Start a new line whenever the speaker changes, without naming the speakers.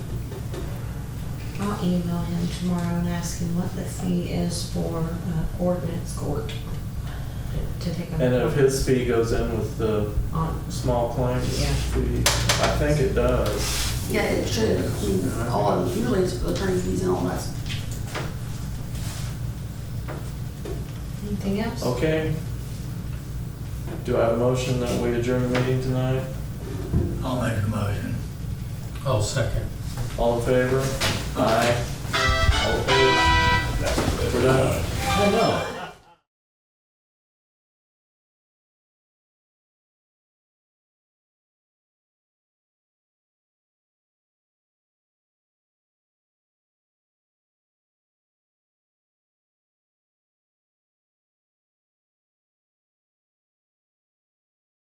I'll email him tomorrow and ask him what the fee is for uh, ordinance court to take.
And if his fee goes in with the
On,
small claims
Yeah.
fee, I think it does.
Yeah, it should, I mean, all, of- usually it's attorney fees and all that.
anything else?
Okay. Do I have a motion that we adjourn the meeting tonight?
I'll make a motion.
I'll second.
All in favor? Aye. All opposed? We're done.
Oh, no.